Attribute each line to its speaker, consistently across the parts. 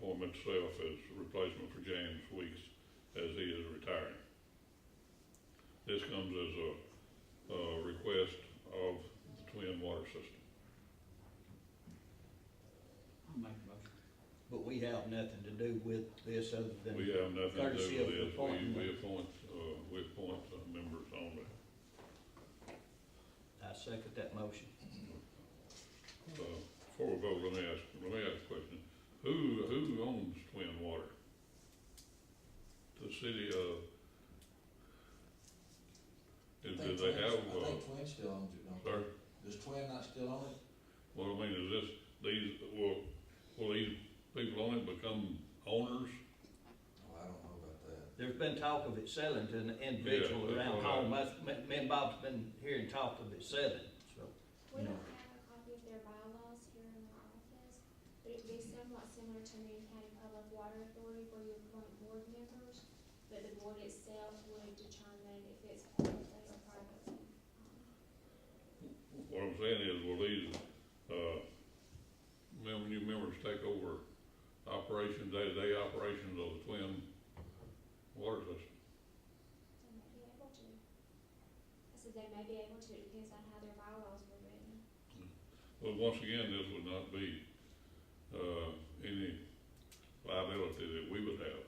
Speaker 1: form itself uh, as a replacement for James Weeks as he is retiring. This comes as a, uh request of the Twin Water System.
Speaker 2: I'll make a motion.
Speaker 3: But we have nothing to do with this other than.
Speaker 1: We have nothing to
Speaker 3: Courtesy
Speaker 1: do
Speaker 3: of
Speaker 1: with this, we,
Speaker 3: appointment.
Speaker 1: we appoint, uh, we appoint uh, members only.
Speaker 3: I second that motion.
Speaker 1: Uh, Before we vote, let me ask, let me ask a question. Who, who owns Twin Water? The city of? Do do they have,
Speaker 4: I
Speaker 1: uh,
Speaker 4: think Twin still owns it, don't
Speaker 1: sir,
Speaker 4: they? Does Twin not still own it?
Speaker 1: what I mean is this, these, will, will these people on it become owners?
Speaker 4: Oh, I don't know about that.
Speaker 3: There's been talk of it selling to an individual
Speaker 1: Yeah,
Speaker 3: around
Speaker 1: that's what I-
Speaker 3: home. Us- Me me and Bob's been hearing talk of it selling, so.
Speaker 5: We
Speaker 3: No.
Speaker 5: don't have a copy of their bylaws here in our office, but it'd be somewhat similar to Marion County Public Water Authority where you appoint board members, but the board itself would determine if it's publicly or privately. um,
Speaker 1: What I'm saying is, will these, uh, mem- new members take over operation, day-to-day operations of the Twin Water System?
Speaker 5: They may be able to. I said they may be able to, it depends on how their bylaws were written.
Speaker 1: But once again, this would not be, uh, any liability that we would have.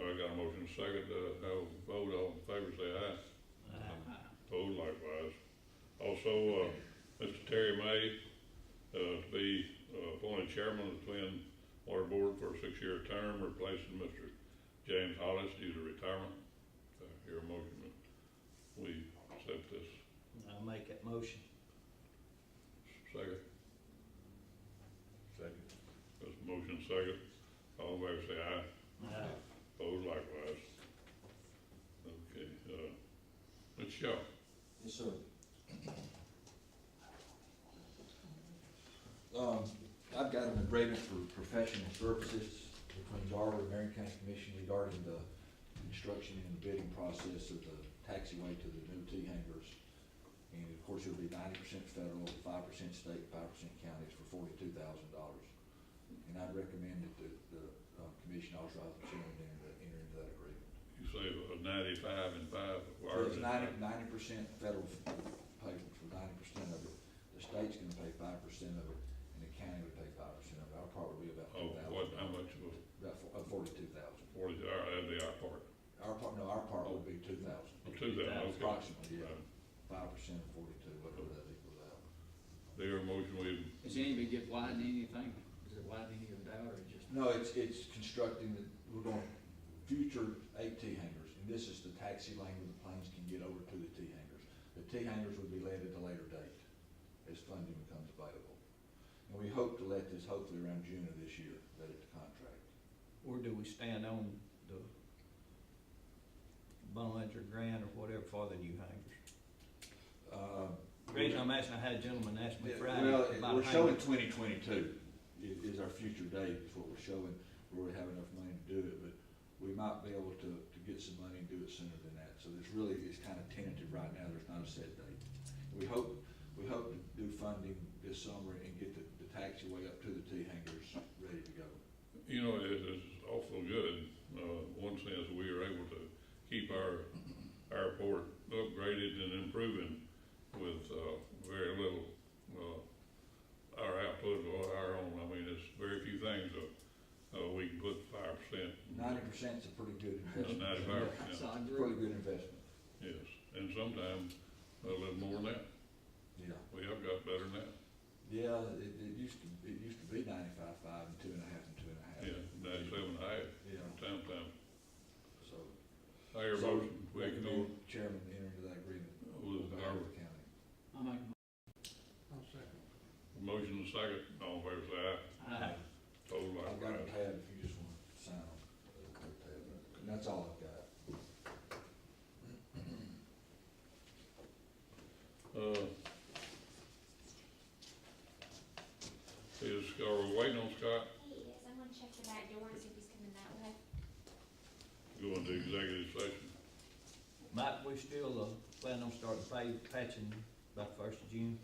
Speaker 1: I got a motion second, uh, have a vote, all in favor, say aye.
Speaker 3: uh,
Speaker 1: Uh-huh. Opposed Oh, likewise. Also, uh, Mr. Terry May, uh, to be uh, appointed chairman of the Twin Water Board for a six-year term, replacing Mr. James Hollis due to retirement. Uh, Hear a motion that we accept this
Speaker 3: I'll make that motion.
Speaker 1: second.
Speaker 4: Second.
Speaker 1: There's a motion second. All in favor say aye.
Speaker 3: Aye.
Speaker 1: Opposed likewise. Okay, uh, Mr. Shaw,
Speaker 4: Yes, sir. Um, I've got an agreement for professional services between Darla and Marion County Commission regarding the construction and bidding process of the taxiway to the new T hangers. And of course, it'll be ninety percent federal, five percent state, five percent counties for forty-two thousand dollars. And I'd recommend that the, the, uh, commission authorize the chairman to enter, enter into that agreement.
Speaker 1: you say a ninety-five and five. why
Speaker 4: So
Speaker 1: is
Speaker 4: it's
Speaker 1: it-
Speaker 4: ninety, ninety percent federal payment for ninety percent of it, the state's gonna pay five percent of it, and the county would pay five percent of it, I'll probably be about
Speaker 1: Oh,
Speaker 4: two thousand.
Speaker 1: what, how much was
Speaker 4: About four, uh, forty-two thousand,
Speaker 1: forty, all right, that'd be our part.
Speaker 4: our part, no, our part would be two thousand,
Speaker 1: Well, Oh, Two thousand, okay.
Speaker 4: approximately, yeah, five percent of forty-two, whatever that equals out.
Speaker 1: Their motion, we,
Speaker 2: Is anybody get widened anything? Is it widened any of that or just?
Speaker 4: No, it's, it's constructing, the we're going, future eight T hangers, and this is the taxi lane where the planes can get over to the T hangers. The T hangers would be led at a later date, as funding becomes available. And we hope to let this hopefully around June of this year, let it to contract.
Speaker 3: Or do we stand on the bonds or grant or whatever for the new hangers?
Speaker 4: Uh,
Speaker 3: The Reason I'm asking, I had a gentleman ask me
Speaker 4: Yeah,
Speaker 3: Friday
Speaker 4: Well, it-
Speaker 3: about
Speaker 4: we're showing
Speaker 3: hangers.
Speaker 4: twenty twenty-two is, is our future date, is what we're showing, where we have enough money to do it, but we might be able to, to get some money and do it sooner than that, so it's really, it's kind of tentative right now, there's not a set date. We hope, we hope to do funding this summer and get the, the taxiway up to the T hangers ready to go.
Speaker 1: you know, it is awful good, uh, one sense, we are able to keep our airport upgraded and improving with, uh, very little, uh, our output or our own, I mean, it's very few things that, uh, we can put five percent.
Speaker 4: Ninety percent's a pretty good investment.
Speaker 1: Ninety-five percent,
Speaker 2: So I
Speaker 4: Pretty
Speaker 2: agree.
Speaker 4: good investment,
Speaker 1: yes, and sometimes a little more than that,
Speaker 4: yeah.
Speaker 1: we have got better than that,
Speaker 4: Yeah, it, it used to, it used to be ninety-five-five and two and a half and two and a half.
Speaker 1: yeah, ninety-seven and a half,
Speaker 4: Yeah,
Speaker 1: sometimes,
Speaker 4: so.
Speaker 1: higher
Speaker 4: So,
Speaker 1: motion, we can go
Speaker 4: Recommend chairman enter into that agreement.
Speaker 1: with our
Speaker 4: Howard County.
Speaker 2: I'll make
Speaker 1: motion and second, all in favor say aye,
Speaker 2: a,
Speaker 3: uh,
Speaker 2: I,
Speaker 1: total
Speaker 4: I've got
Speaker 1: likewise.
Speaker 4: a tab if you just want to sign on. And that's all I've got.
Speaker 1: Uh, Is, are we waiting on Scott,
Speaker 5: He is, Oh, I'm gonna check the back door and see if he's coming that way.
Speaker 1: going to executive session?
Speaker 3: Mike, we still uh, planning on starting pay, patching by the first of June?